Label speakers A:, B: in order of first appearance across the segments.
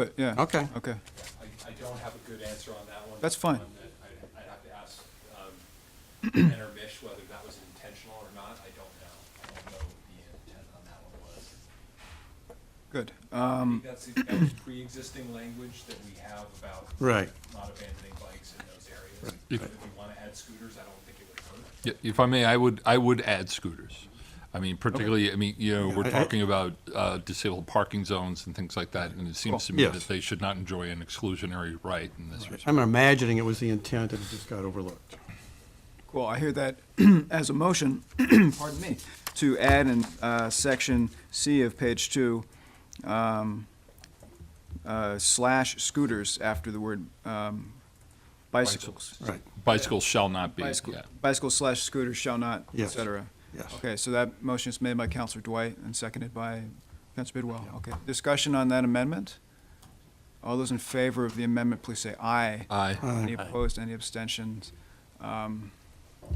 A: But, yeah.
B: Okay.
A: Okay.
C: I, I don't have a good answer on that one.
A: That's fine.
C: One that I- I'd have to ask, um, Ken or Mish whether that was intentional or not, I don't know. I don't know what the intent on that one was.
A: Good.
C: I
A: Um,
C: think that's, that was pre-existing language that we have about
B: Right.
C: not abandoning bikes in those areas.
D: If-
C: If we wanna add scooters, I don't think it would hurt.
D: Yeah, If I may, I would, I would add scooters. I mean, particularly, I mean, you know, we're
B: I- I-
D: talking about uh, disabled parking zones and things like that, and it seems to me
B: Yes.
D: that they should not enjoy an exclusionary right in this respect.
B: I'm imagining it was the intent and it just got overlooked.
A: Cool, I hear that as a motion, pardon me, to add in uh, section C of page two, um, uh, slash scooters after the word um, bicycles.
B: Right,
D: Bicycles shall not be,
A: Bicycle
D: yeah.
A: bicycle slash scooters shall not, et
B: Yes.
A: cetera.
B: yes.
A: Okay, so that motion is made by Counselor Dwight and seconded by Counselor Bidwell. Okay, discussion on that amendment? All those in favor of the amendment, please say aye.
D: Aye.
B: Uh,
A: Any opposed, any abstentions? Um, I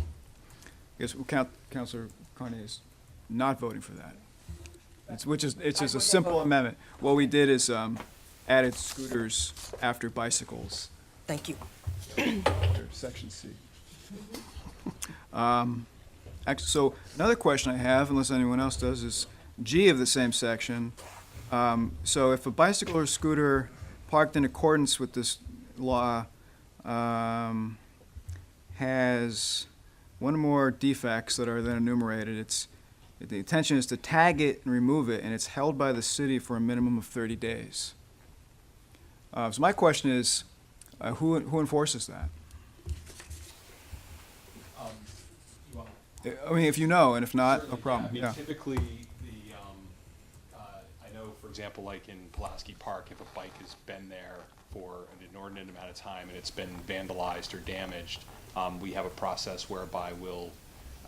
A: guess we'll count, Counselor Carney is not voting for that. It's, which is, it's just a simple amendment. What we did is, um, added scooters after bicycles,
E: Thank you.
A: under section C. Um, act- so another question I have, unless anyone else does, is G of the same section. Um, so if a bicycle or scooter parked in accordance with this law, um, has one or more defects that are then enumerated, it's, the intention is to tag it and remove it, and it's held by the city for a minimum of thirty days. Uh, so my question is, uh, who, who enforces that?
C: Um, you want-
A: I mean, if you know, and if not, no
C: Certainly, I
A: problem,
C: mean,
A: yeah.
C: Typically, the, um, uh, I know, for example, like in Pulaski Park, if a bike has been there for an inordinate amount of time and it's been vandalized or damaged, um, we have a process whereby we'll,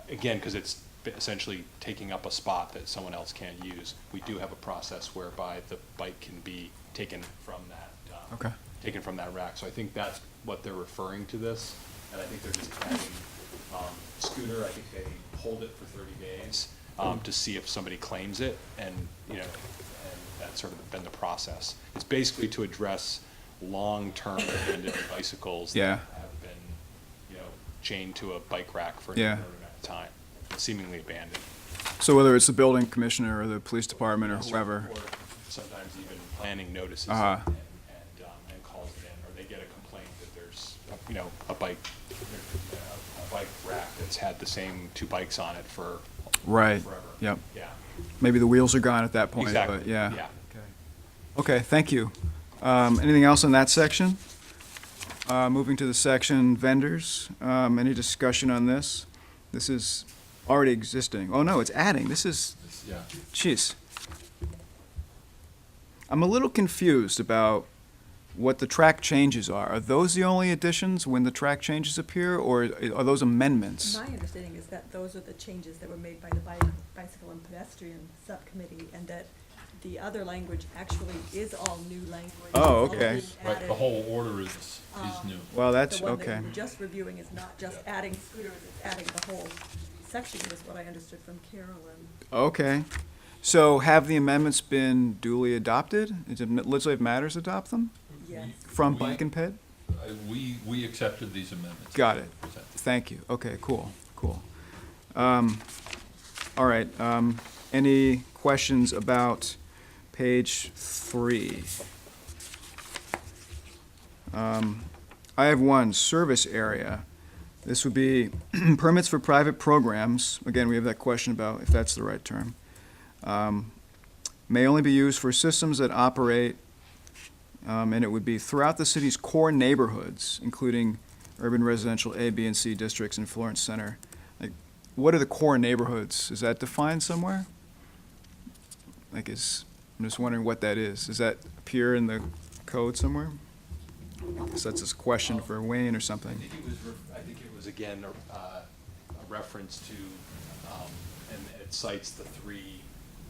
C: again, because it's essentially taking up a spot that someone else can't use, we do have a process whereby the bike can be taken from that, um,
A: Okay.
C: taken from that rack. So I think that's what they're referring to this, and I think they're just adding um, scooter. I think they hold it for 30 days um, to see if somebody claims it, and you know, and that's sort of been the process. It's basically to address long-term abandoned bicycles
A: Yeah.
C: that have been, you know, chained to a bike rack for an
A: Yeah.
C: inordinate amount of time, seemingly abandoned.
A: So whether it's the building commissioner or the police department or whoever,
C: Or sometimes even planning notices and,
A: Uh-huh.
C: and, um, and calls it in, or they get a complaint that there's, you know, a bike, a bike rack that's had the same two bikes on it for
A: right,
C: forever.
A: yep.
C: Yeah,
A: Maybe the wheels are gone at that point,
C: exactly.
A: but yeah. Okay. Okay, thank you. Um, anything else in that section? Uh, moving to the section vendors, um, any discussion on this? This is already existing. Oh, no, it's adding. This is,
C: Yeah.
A: Jeez. I'm a little confused about what the track changes are. Are those the only additions when the track changes appear, or are those amendments?
F: My understanding is that those are the changes that were made by the bi- bicycle and pedestrian subcommittee, and that the other language actually is all new language.
A: Oh,
F: It's all
A: okay.
F: being added.
D: order is, is new.
A: Well, that's,
F: The one that
A: okay.
F: we were just reviewing is not just adding scooters, it's adding the whole section, is what I understood from Carolyn.
A: Okay. So have the amendments been duly adopted? Did legislative matters adopt them
F: Yes.
A: from
D: We-
A: Bike and Ped?
D: We, we accepted these amendments.
A: Got it. Thank you. Okay, cool, cool. Um, all right, um, any questions about page three? Um, I have one, service area. This would be permits for private programs. Again, we have that question about if that's the right term. Um, May only be used for systems that operate, um, and it would be throughout the city's core neighborhoods, including urban residential A, B, and C districts in Florence Center. Like, what are the core neighborhoods? Is that defined somewhere? Like, is, I'm just wondering what that is. Does that appear in the code somewhere? I guess that's a question for Wayne or
C: I
A: something.
C: think it was, re- I think it was again, a- uh, a reference to, um, and it cites the three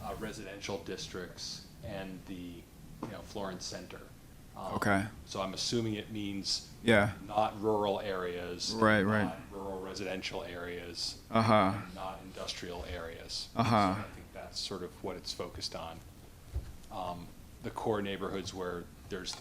C: uh, residential districts and the, you know, Florence Center. Um,
A: Okay.
C: So I'm assuming it means
A: Yeah,
C: not rural areas.
A: Right, right.
C: Not rural residential areas,
A: uh-huh,
C: and not industrial areas.
A: Uh-huh.
C: So I think that's sort of what it's focused on. Um, The core neighborhoods where there's